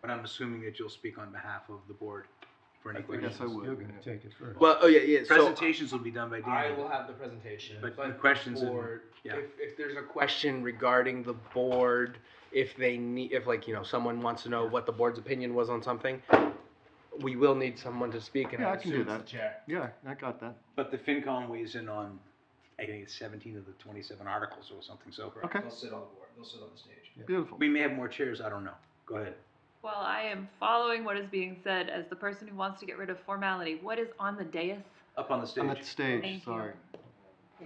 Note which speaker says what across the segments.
Speaker 1: but I'm assuming that you'll speak on behalf of the board for any
Speaker 2: I
Speaker 1: questions.
Speaker 2: guess I would.
Speaker 3: You're gonna take it first.
Speaker 2: Well, oh yeah, yeah. So
Speaker 1: Presentations will be done by
Speaker 4: I
Speaker 1: Danny.
Speaker 4: will have the presentation,
Speaker 1: But
Speaker 4: but
Speaker 1: the questions and-
Speaker 4: for,
Speaker 1: yeah.
Speaker 4: if, if there's a question regarding the board, if they need, if like, you know, someone wants to know what the board's opinion was on something, we will need someone to speak and
Speaker 2: Yeah,
Speaker 4: I
Speaker 2: I can
Speaker 4: assume
Speaker 2: do
Speaker 4: it's the
Speaker 2: that.
Speaker 4: chair.
Speaker 2: yeah, I got that.
Speaker 1: But the FinCom weighs in on, I think it's 17 of the 27 articles or something, so
Speaker 2: Okay,
Speaker 4: They'll sit on the board, they'll sit on the stage.
Speaker 2: beautiful.
Speaker 1: we may have more chairs, I don't know. Go ahead.
Speaker 5: Well, I am following what is being said as the person who wants to get rid of formality. What is on the dais?
Speaker 1: Up on the
Speaker 2: On
Speaker 1: stage.
Speaker 2: that stage,
Speaker 5: Thank
Speaker 2: sorry.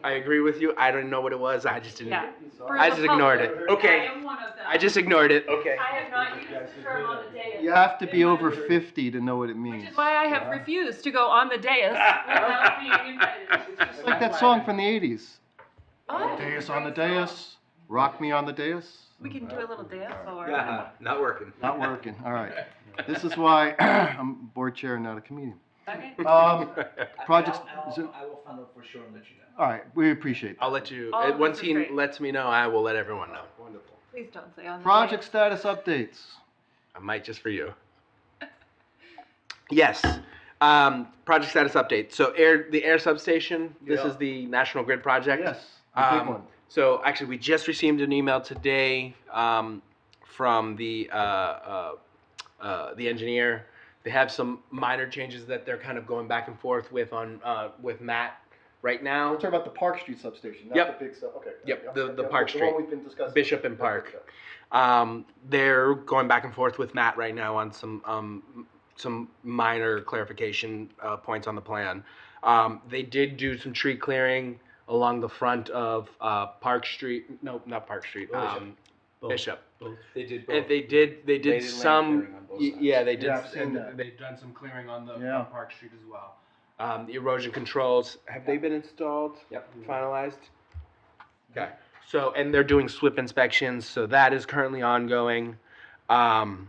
Speaker 4: I agree with you, I didn't know what it was, I just didn't,
Speaker 5: Yeah. For
Speaker 4: I
Speaker 5: the
Speaker 4: just ignored
Speaker 5: public.
Speaker 4: it. Okay.
Speaker 5: I am one of them.
Speaker 4: I just ignored it. Okay.
Speaker 5: I have not used the term on the dais.
Speaker 2: You have to be over fifty to know what it
Speaker 5: Which
Speaker 2: means.
Speaker 5: is why I have refused to go on the dais without being invited.
Speaker 2: It's like that song from the eighties.
Speaker 5: Oh,
Speaker 2: Dais on the
Speaker 5: great song.
Speaker 2: dais, rock me on the dais.
Speaker 5: We can do a little dance or.
Speaker 1: Yeah, not working.
Speaker 2: Not working, all right. This is why I'm board chair and not a comedian.
Speaker 5: Okay.
Speaker 2: Um, projects, is it-
Speaker 4: I will find out for sure and let you know.
Speaker 2: all right, we appreciate that.
Speaker 4: I'll let you,
Speaker 5: All
Speaker 4: uh,
Speaker 5: of this
Speaker 4: once
Speaker 5: is
Speaker 4: he
Speaker 5: great.
Speaker 4: lets me know, I will let everyone know.
Speaker 3: Wonderful.
Speaker 5: Please don't say on the.
Speaker 2: Project status updates.
Speaker 4: I might just for you. yes. Um, project status update. So air the air substation. This
Speaker 2: Yeah.
Speaker 4: is the National Grid project.
Speaker 2: Yes, the big
Speaker 4: Um,
Speaker 2: one.
Speaker 4: So actually, we just received an email today um, from the uh, uh, uh, the engineer. They have some minor changes that they're kind of going back and forth with on uh, with Matt right now.
Speaker 3: talking about the Park Street substation,
Speaker 4: not Yep.
Speaker 3: the big sub, okay.
Speaker 4: Yep, Yeah, the- the yeah, Park the one Street.
Speaker 3: we've been discussing.
Speaker 4: Bishop and Park. Um, they're going back and forth with Matt right now on some um, some minor clarification uh, points on the plan. Um, they did do some tree clearing along the front of uh, Park Street. No, not Park Street.
Speaker 1: Bishop.
Speaker 4: Um, Bishop.
Speaker 1: They did
Speaker 4: And they did. They did some. y- Yeah, they did.
Speaker 3: Yeah, I've seen
Speaker 4: and
Speaker 3: that.
Speaker 4: They've done some clearing on the
Speaker 2: Yeah.
Speaker 4: on Park Street as well. Um, the erosion controls have they been installed? Yep. Finalized. Okay. So and they're doing SWIP inspections. So that is currently ongoing. Um,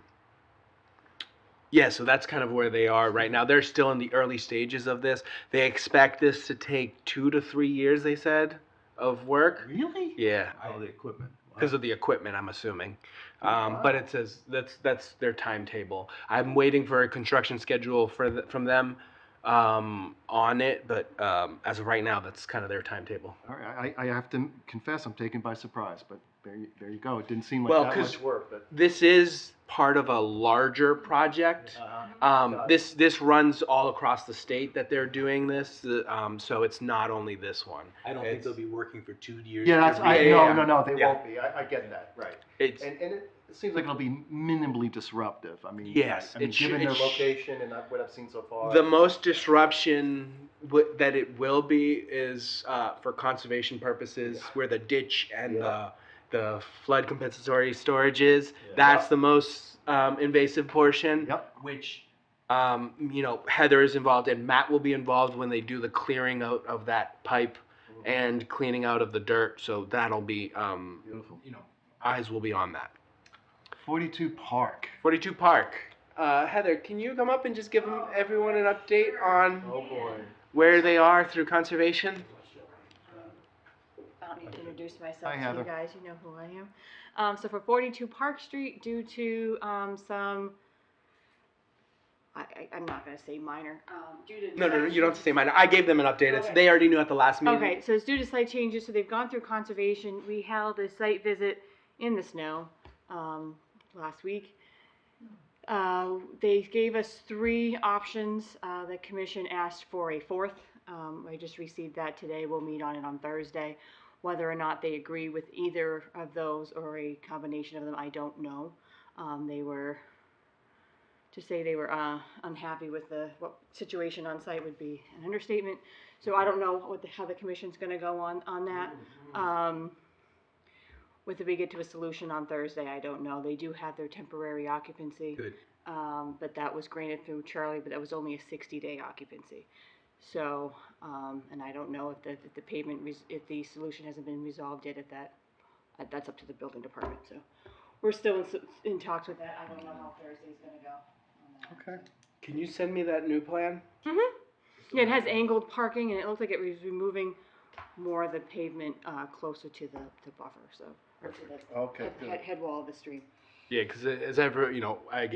Speaker 4: yeah, so that's kind of where they are right now. They're still in the early stages of this. They expect this to take two to three years. They said of work.
Speaker 1: Really?
Speaker 4: Yeah
Speaker 1: All the equipment.
Speaker 4: because of the equipment, I'm assuming.
Speaker 3: Oh,
Speaker 4: Um, But it says that's that's their timetable. I'm waiting for a construction schedule for the, from them um, on it, but um, as of right now, that's kind of their timetable.
Speaker 2: All right, I, I have to confess, I'm taken by surprise, but there, you- there you go. It didn't seem like
Speaker 4: Well,
Speaker 2: that
Speaker 4: 'cause-
Speaker 2: much.
Speaker 3: Much work, but.
Speaker 4: This is part of a larger project. Um, this this runs all across the state that they're doing this, the- um, so it's not only this one.
Speaker 1: I don't think
Speaker 4: It's-
Speaker 1: they'll be working for two years.
Speaker 2: Yeah, that's, I,
Speaker 4: Yeah, yeah,
Speaker 2: no,
Speaker 4: yeah.
Speaker 2: no, no, they
Speaker 4: Yeah.
Speaker 2: won't be. I, I get that, right.
Speaker 4: It's
Speaker 3: And, and it it
Speaker 2: Seems
Speaker 3: seems
Speaker 2: like
Speaker 3: like
Speaker 2: it'll be minimally disruptive. I mean,
Speaker 4: Yes,
Speaker 2: I mean,
Speaker 4: it should-
Speaker 2: given
Speaker 4: it
Speaker 2: their
Speaker 3: their
Speaker 4: sh-
Speaker 3: location and not what I've seen so far.
Speaker 4: The most disruption w- that it will be is uh, for conservation purposes, where the ditch and
Speaker 3: Yeah.
Speaker 4: the the flood compensatory storage is. That's the most um, invasive portion.
Speaker 2: Yep.
Speaker 4: Which, um, you know, Heather is involved and Matt will be involved when they do the clearing out of that pipe
Speaker 3: Mhm.
Speaker 4: and cleaning out of the dirt. So that'll be, um,
Speaker 2: Beautiful.
Speaker 4: you know, eyes will be on that.
Speaker 2: 42 Park.
Speaker 4: Forty-two Park. Uh, Heather, can you come up and just give 'em- everyone an update on?
Speaker 3: Oh, boy.
Speaker 4: where they are through conservation.
Speaker 6: I don't need to introduce myself
Speaker 2: Hi,
Speaker 6: to
Speaker 2: Heather.
Speaker 6: you guys, you know who I am. Um, so for forty-two Park Street, due to, um, some, I, I, I'm not gonna say minor, um, due to.
Speaker 4: No, no, no, you don't have to
Speaker 6: deductions-
Speaker 4: say mine. I gave them an update. It's, they already knew at the last meeting.
Speaker 6: Okay, so it's due to site changes, so they've gone through conservation, we held a site visit in the snow, um, last week. Uh, they gave us three options, uh, the commission asked for a fourth, um, I just received that today, we'll meet on it on Thursday. Whether or not they agree with either of those or a combination of them, I don't know. Um, they were, to say they were, uh, unhappy with the, what situation on site would be an understatement. So I don't know what the, how the commission's gonna go on, on that. Um, whether we get to a solution on Thursday, I don't know. They do have their temporary occupancy.
Speaker 1: Good.
Speaker 6: Um, but that was granted through Charlie, but that was only a sixty-day occupancy. So, um, and I don't know if the, if the pavement, res- if the solution hasn't been resolved yet at that, uh, that's up to the building department, so. We're still in, s- in talks with that. I don't know how Thursday's gonna go on that.
Speaker 2: Okay.
Speaker 4: Can you send me that new plan?
Speaker 6: Yeah, it has angled parking, and it looked like it was removing more of the pavement uh, closer to the, the buffer, so. or to the
Speaker 2: Okay,
Speaker 6: Head, head wall of the stream.
Speaker 4: Yeah, because as ever, you know, I